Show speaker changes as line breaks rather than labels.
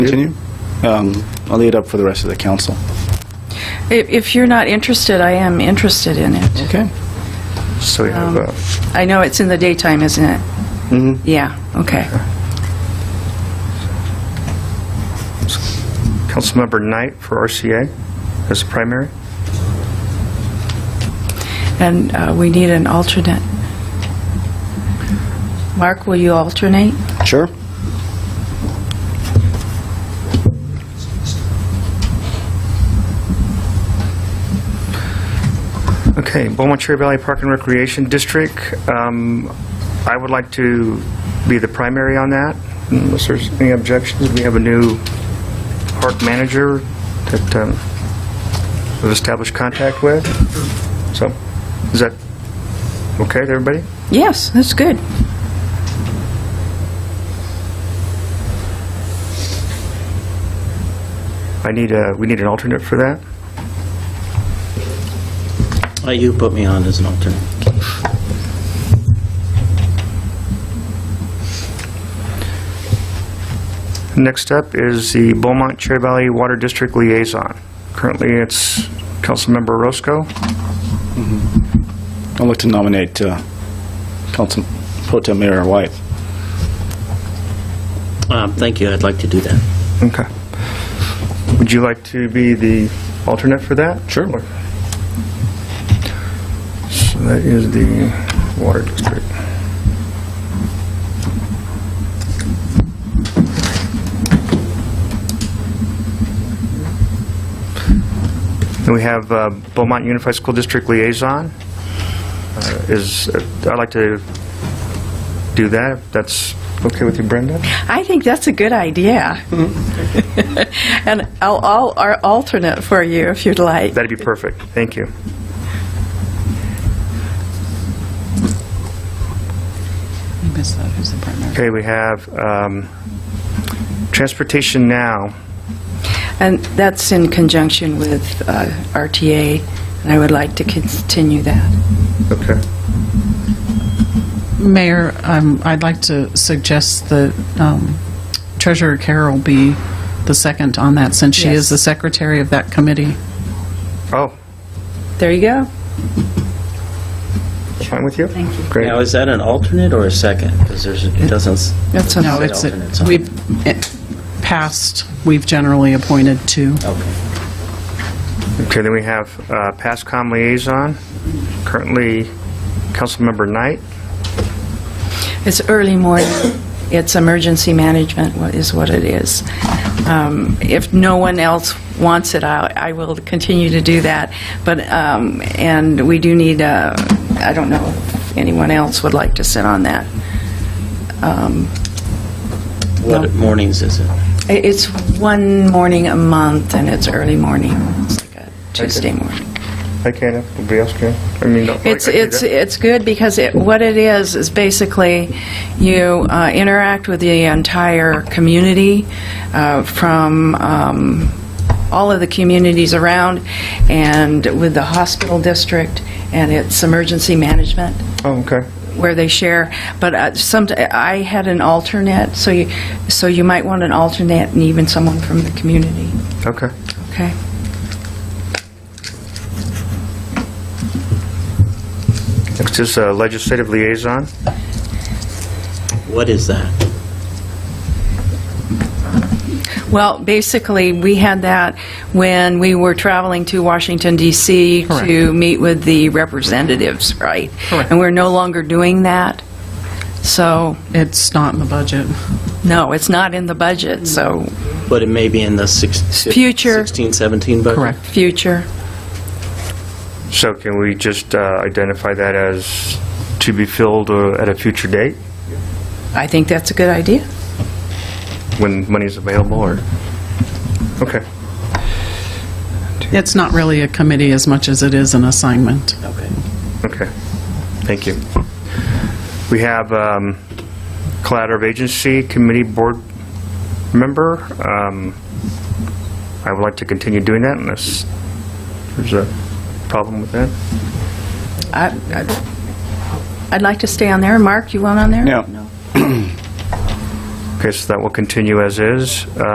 Continue? Um, I'll leave it up for the rest of the council.
If if you're not interested, I am interested in it.
Okay.
So we have, uh,
I know it's in the daytime, isn't it? Mm-hmm. Yeah, okay.
Councilmember Knight for RCA as a primary.
And uh, we need an alternate. Mark, will you alternate?
Sure.
Okay, Beaumont Cherry Valley Park and Recreation District, um, I would like to be the primary on that, unless there's any objections. We have a new park manager that um, we've established contact with, so is that okay with everybody?
Yes, that's good.
I need a, we need an alternate for that?
Uh, You put me on as an alternate.
Next up is the Beaumont Cherry Valley Water District Liaison. Currently, it's Councilmember Roscoe.
I'd like to nominate uh, Council Pro Tem Mayor White.
Um, Thank you, I'd like to do that.
Okay. Would you like to be the alternate for that?
Sure.
Or- So that is the Water District. Then we have uh, Beaumont Unified School District Liaison. Uh, Is, I'd like to do that, if that's okay with you, Brenda?
I think that's a good idea. And I'll I'll ar- alternate for you if you'd like.
That'd be perfect. Thank you. Okay, we have um, Transportation Now.
And that's in conjunction with uh, RTA, and I would like to continue that.
Okay.
Mayor, um, I'd like to suggest that um, Treasurer Carroll be the second on that, since she
Yes.
is the secretary of that committee.
Oh,
There you go.
fine with you? Thank you.
Now,
Great.
is that an alternate or a second? Because there's, it doesn't, s-
That's
No,
a-
it's,
alternates on.
we've, it- past, we've generally appointed two.
okay.
Okay, then we have uh, PASCOM Liaison, currently Councilmember Knight.
It's early morning. It's emergency management wha- is what it is. Um, If no one else wants it, I I will continue to do that. But, um, and we do need, uh, I don't know if anyone else would like to sit on that.
What mornings is it?
I- It's one morning a month, and it's early morning. It's like a Tuesday morning.
I can, if anybody else can. I mean, no, I
It's,
can do
it's,
that.
it's good because it, what it is, is basically you uh, interact with the entire community uh, from um, all of the communities around and with the hospital district and its emergency management
Oh, okay.
where they share. But uh, some, I had an alternate, so you, so you might want an alternate and even someone from the community,
Okay.
okay?
Next is uh, Legislative Liaison.
What is that?
Well, basically, we had that when we were traveling to Washington DC to meet with the representatives, right? And we're no longer doing that. So,
It's not in the budget.
no, it's not in the budget, so
But it may be in the six-
Future.
16, 17 budget?
Correct.
future.
So can we just uh, identify that as to be filled uh, at a future date,
I think that's a good idea.
when money's available, or? Okay.
It's not really a committee as much as it is an assignment.
Okay.
Okay, thank you. We have um, Collaborative Agency Committee Board Member. Um, I would like to continue doing that unless there's a problem with that.
I- I'd I'd like to stay on there. Mark, you want on there?
No.
Okay, so that will continue as is. Uh,